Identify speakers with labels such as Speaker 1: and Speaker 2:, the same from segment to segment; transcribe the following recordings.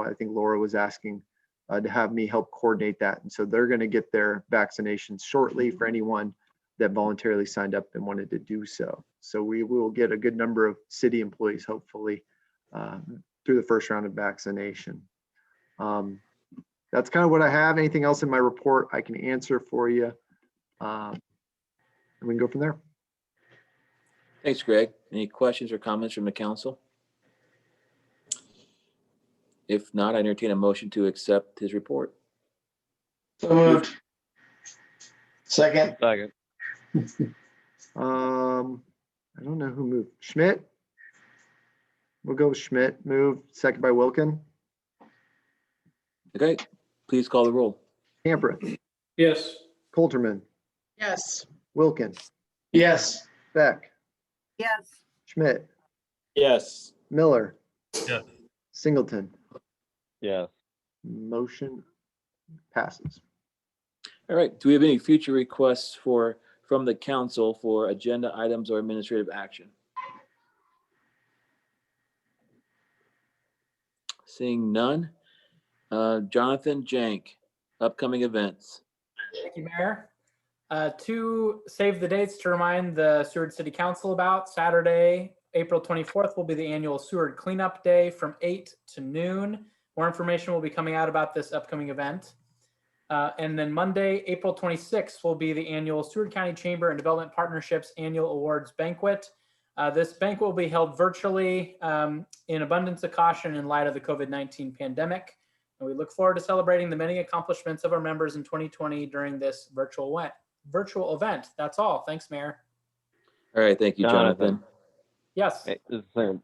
Speaker 1: I think Laura was asking uh, to have me help coordinate that. And so they're going to get their vaccinations shortly for anyone that voluntarily signed up and wanted to do so. So we will get a good number of city employees, hopefully, uh, through the first round of vaccination. Um, That's kind of what I have. Anything else in my report I can answer for you? Um, And we can go from there.
Speaker 2: Thanks, Greg. Any questions or comments from the council? If not, I entertain a motion to accept his report.
Speaker 3: So moved. Second,
Speaker 4: Second.
Speaker 1: Um, I don't know who moved. Schmidt? We'll go with Schmidt. Move, second by Wilkin.
Speaker 2: Okay, please call the roll.
Speaker 1: Campereth,
Speaker 5: Yes.
Speaker 1: Coulterman,
Speaker 6: Yes.
Speaker 1: Wilkin,
Speaker 3: yes.
Speaker 1: Beck,
Speaker 6: Yes.
Speaker 1: Schmidt,
Speaker 3: Yes.
Speaker 1: Miller.
Speaker 4: Yes.
Speaker 1: Singleton,
Speaker 4: Yes.
Speaker 1: motion passes.
Speaker 2: All right, do we have any future requests for, from the council for agenda items or administrative action? Seeing none. Uh, Jonathan Jank, upcoming events.
Speaker 7: Thank you, Mayor. Uh, Two save the dates to remind the Seward City Council about. Saturday, April 24th will be the annual Seward Cleanup Day from 8 to noon. More information will be coming out about this upcoming event. Uh, And then Monday, April 26th will be the annual Seward County Chamber and Development Partnerships Annual Awards Banquet. Uh, This banquet will be held virtually um, in abundance of caution in light of the COVID-19 pandemic. And we look forward to celebrating the many accomplishments of our members in 2020 during this virtual event. Virtual event. That's all. Thanks, Mayor.
Speaker 2: All right, thank you, Jonathan.
Speaker 4: Jonathan.
Speaker 7: Yes.
Speaker 4: Hey, this is Sam.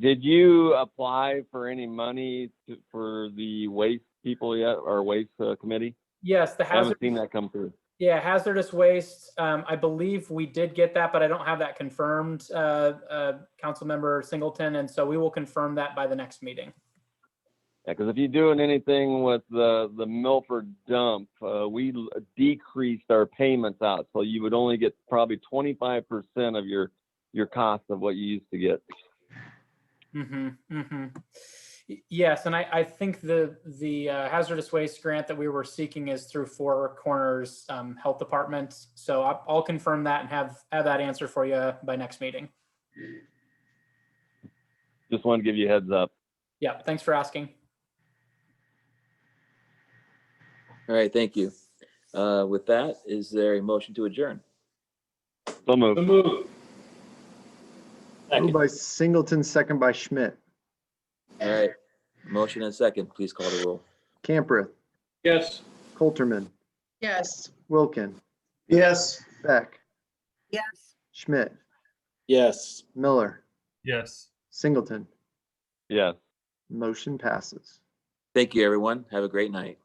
Speaker 4: Did you apply for any money to- for the waste people yet, or waste uh, committee?
Speaker 7: Yes. The
Speaker 4: I haven't
Speaker 7: hazard.
Speaker 4: seen that come through.
Speaker 7: Yeah, hazardous waste. Um, I believe we did get that, but I don't have that confirmed. Uh, uh, Councilmember Singleton, and so we will confirm that by the next meeting.
Speaker 4: Yeah, because if you're doing anything with the, the Milford dump, uh, we l- decreased our payments out, so you would only get probably twenty-five percent of your, your cost of what you used to get.
Speaker 7: Mm-hmm, mm-hmm. Yes, and I, I think the, the uh, hazardous waste grant that we were seeking is through Four Corners um, Health Department. So I- I'll confirm that and have, have that answer for you uh, by next meeting.
Speaker 4: Just wanted to give you a heads up.
Speaker 7: Yeah, thanks for asking.
Speaker 2: All right, thank you. Uh, With that, is there a motion to adjourn?
Speaker 4: So
Speaker 5: So
Speaker 4: moved.
Speaker 5: moved.
Speaker 1: Moved by Singleton, second by Schmidt.
Speaker 2: All right, motion and second, please call the roll.
Speaker 1: Campereth,
Speaker 5: Yes.
Speaker 1: Coulterman,
Speaker 6: Yes.
Speaker 1: Wilkin,
Speaker 3: Yes.
Speaker 1: Beck,
Speaker 6: Yes.
Speaker 1: Schmidt,
Speaker 3: Yes.
Speaker 1: Miller,
Speaker 5: Yes.
Speaker 1: Singleton,
Speaker 4: Yes.
Speaker 1: motion passes.
Speaker 2: Thank you, everyone. Have a great night.